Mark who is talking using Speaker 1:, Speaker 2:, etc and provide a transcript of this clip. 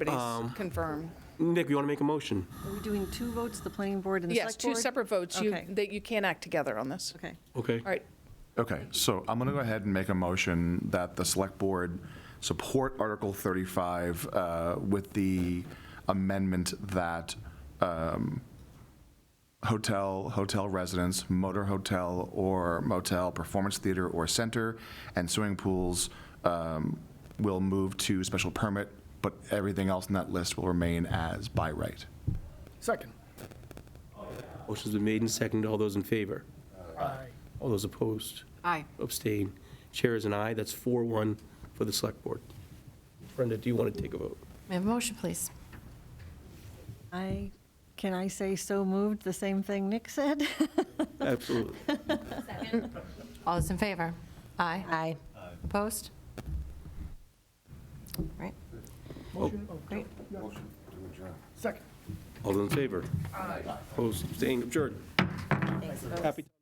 Speaker 1: everybody's confirmed.
Speaker 2: Nick, you want to make a motion?
Speaker 3: Are we doing two votes, the planning board and the
Speaker 1: Yes,
Speaker 3: select board?
Speaker 1: two separate votes, you,
Speaker 3: Okay.
Speaker 1: that you can't act together on this.
Speaker 3: Okay.
Speaker 2: Okay.
Speaker 1: All right,
Speaker 4: Okay, so I'm going to go ahead and make a motion that the Select Board support Article 35 uh, with the amendment that um, hotel, hotel residence, motor hotel or motel, performance theater or center, and swimming pools um, will move to special permit, but everything else in that list will remain as by right.
Speaker 5: Second.
Speaker 2: Motion's been made and seconded. All those in favor?
Speaker 5: Aye.
Speaker 2: All those opposed?
Speaker 3: Aye.
Speaker 2: Abstain. Chair is an aye. That's 4-1 for the Select Board. Brenda, do you want to take a vote?
Speaker 6: May I have a motion, please?
Speaker 3: I, can I say so moved, the same thing Nick said?
Speaker 2: Absolutely.
Speaker 6: All those in favor? Aye.
Speaker 3: Aye.
Speaker 6: Opposed? Right. Great.
Speaker 5: Second.
Speaker 2: All those in favor? Aye. Opposed, abstained, adjourned. Happy.